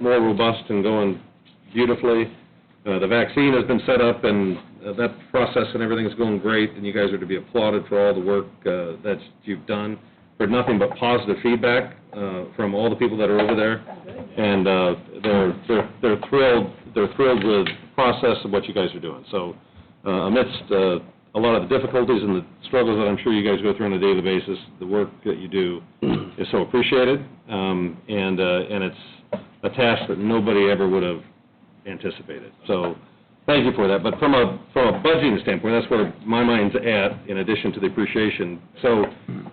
more robust and going beautifully. Uh, The vaccine has been set up, and uh, that process and everything is going great, and you guys are to be applauded for all the work uh, that you've done. Heard nothing but positive feedback uh, from all the people that are over there, and uh, they're they're they're thrilled, they're thrilled with the process of what you guys are doing. So uh, amidst uh, a lot of the difficulties and the struggles that I'm sure you guys go through on a daily basis, the work that you do is so appreciated, um, and uh, and it's a task that nobody ever would have anticipated. So, thank you for that. But from a, from a budgeting standpoint, that's where my mind's at, in addition to the appreciation. So,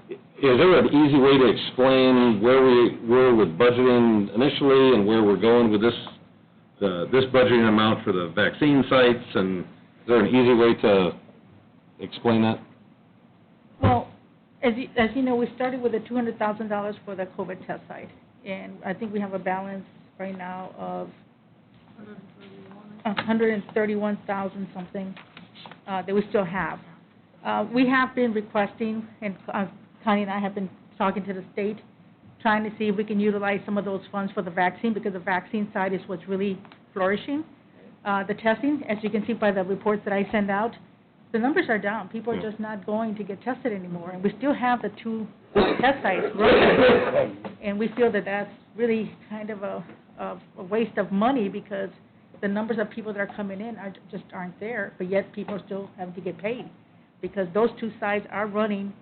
is there an easy way to explain where we were with budgeting initially and where we're going with this, uh, this budgeting amount for the vaccine sites? And is there an easy way to explain that? Well, as you, as you know, we started with the two hundred thousand dollars for the COVID test site, and I think we have a balance right now of a hundred and thirty-one thousand something, uh, that we still have. Uh, we have been requesting, and uh, Connie and I have been talking to the state, trying to see if we can utilize some of those funds for the vaccine, because the vaccine side is what's really flourishing. Uh, the testing, as you can see by the reports that I send out, the numbers are down. People are Yeah. just not going to get tested anymore, and we still have the two test sites running. And we feel that that's really kind of a, of a waste of money because the numbers of people that are coming in are, just aren't there, but yet people still have to get paid because those two sites are running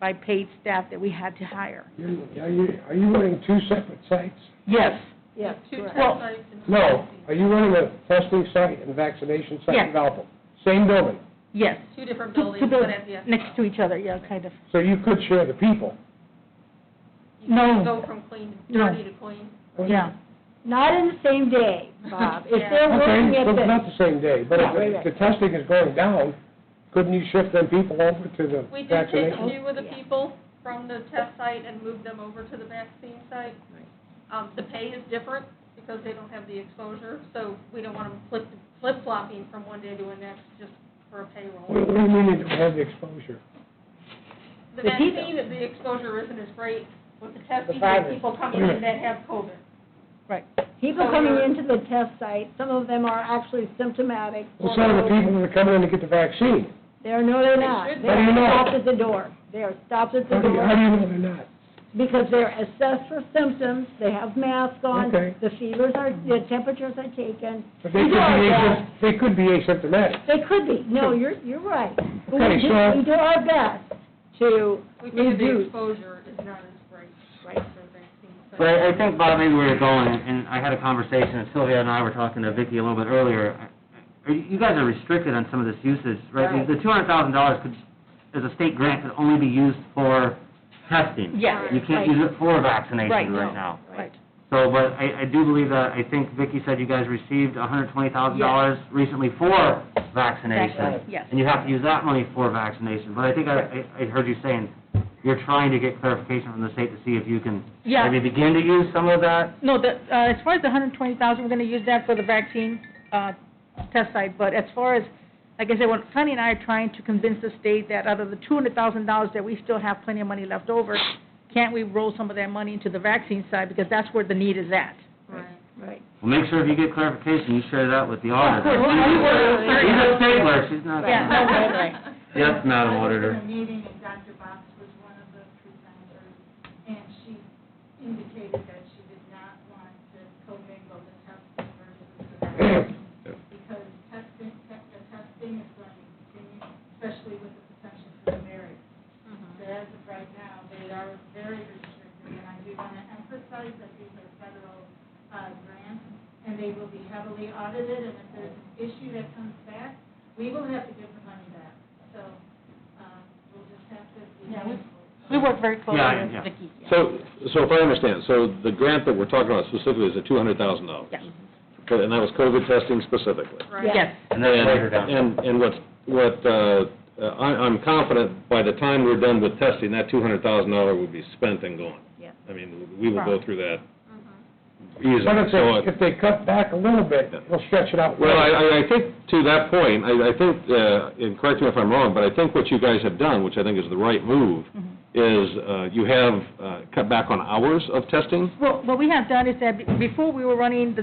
by paid staff that we had to hire. You- Are you, are you running two separate sites? Yes. Yes. Two correct. test sites and. No, are you running a testing site and a vaccination site in Yes. Valpo? Same building, Yes. Two different Two- buildings, two but buildings at the. next to each other, yeah, kind of. so you could share the people. You can No. Go from clean, No. dirty to clean. Yeah. Not in the same day, Bob. If they're working Okay, at but the, not the same day, but Yeah, wait a if minute. the testing is going down, couldn't you shift them people over to the We did take a vaccination? few of the Yeah. people from the test site and moved them over to the vaccine site. Um, the pay is different because they don't have the exposure, so we don't want them flip, flip flopping from one day to the next just for a What payroll. what do you mean you don't have the exposure? The The people. vaccine, the exposure isn't as great with the testing, virus. the people coming in that have COVID. Right. people coming into the test site, some of them are actually symptomatic. Well, some of the people that are coming in to get the vaccine, They're, no, they're They not. should be. How do They're you know? stopped at the door. They're stopped at the how do you, how do door you know they're not? because they're assessed for symptoms, they have masks on, Okay. the fevers are, the temperatures are taken. But they could be, asympt- they could be asymptomatic. They could be. No, you're, you're right. But we Okay, do- so- We do our best to We figure the reduce. exposure is not as great, right, for the vaccine site. But I I think, Bob, maybe where you're going, and I had a conversation, Sylvia and I were talking to Vicki a little bit earlier, Are you you guys are restricted on some of this usage, right? The the $200,000 could, as a state grant, could only be used for testing. Yes. You Right. can't use it for Right. vaccination right now. Right. So, but I I do believe that, I think Vicki said you guys received $120,000 recently for vaccination. Vaccination, yes. And you have to use that money for vaccination. But I think I I I heard you saying, you're trying to get clarification from the state to see if you can Yeah. maybe begin to use some of that? No, the, uh, as far as the hundred and twenty thousand, we're gonna use that for the vaccine, uh, test site, but as far as, like I said, when Connie and I are trying to convince the state that out of the two hundred thousand dollars that we still have plenty of money left over, can't we roll some of that money into the vaccine side, because that's where the need is at. Right. Right. Well, make sure if you get clarification, you share that with the Of course, auditor. we- we were- She's a stabler, she's not. Yeah, no, right, right. Yes, Madam Auditor. meeting, and Dr. Box was one of the presenters, and she indicated that she did not want to commingle the testing versus the vaccine, because testing, the testing is going to continue, especially with the potential for the marriage. Mm-hmm. So as of right now, they are very restricted, and I do want to emphasize that these are federal uh, grants, and they will be heavily audited, and if there's an issue that comes back, we will have to give the money back. So um, we'll just have to be Yeah, we- mindful. We work very closely Yeah, yeah. with Vicki. yeah. So, so if I understand, so the grant that we're talking about specifically is the $200,000? Yeah. And that was COVID testing specifically? Right. Yes, And then later down. And, and what's, what, uh, uh, I, I'm confident by the time we're done with testing, that two hundred thousand dollar will be spent and gone. Yes. I mean, we will go through that easily. But if So, uh, they, if they cut back a little bit, we'll stretch it out. well, I- I, I think to that point, I, I think, uh, and correct me if I'm wrong, but I think what you guys have done, which I think is the right move, is uh, you have uh, cut back on hours of testing. Well, what we have done is that be- before we were running the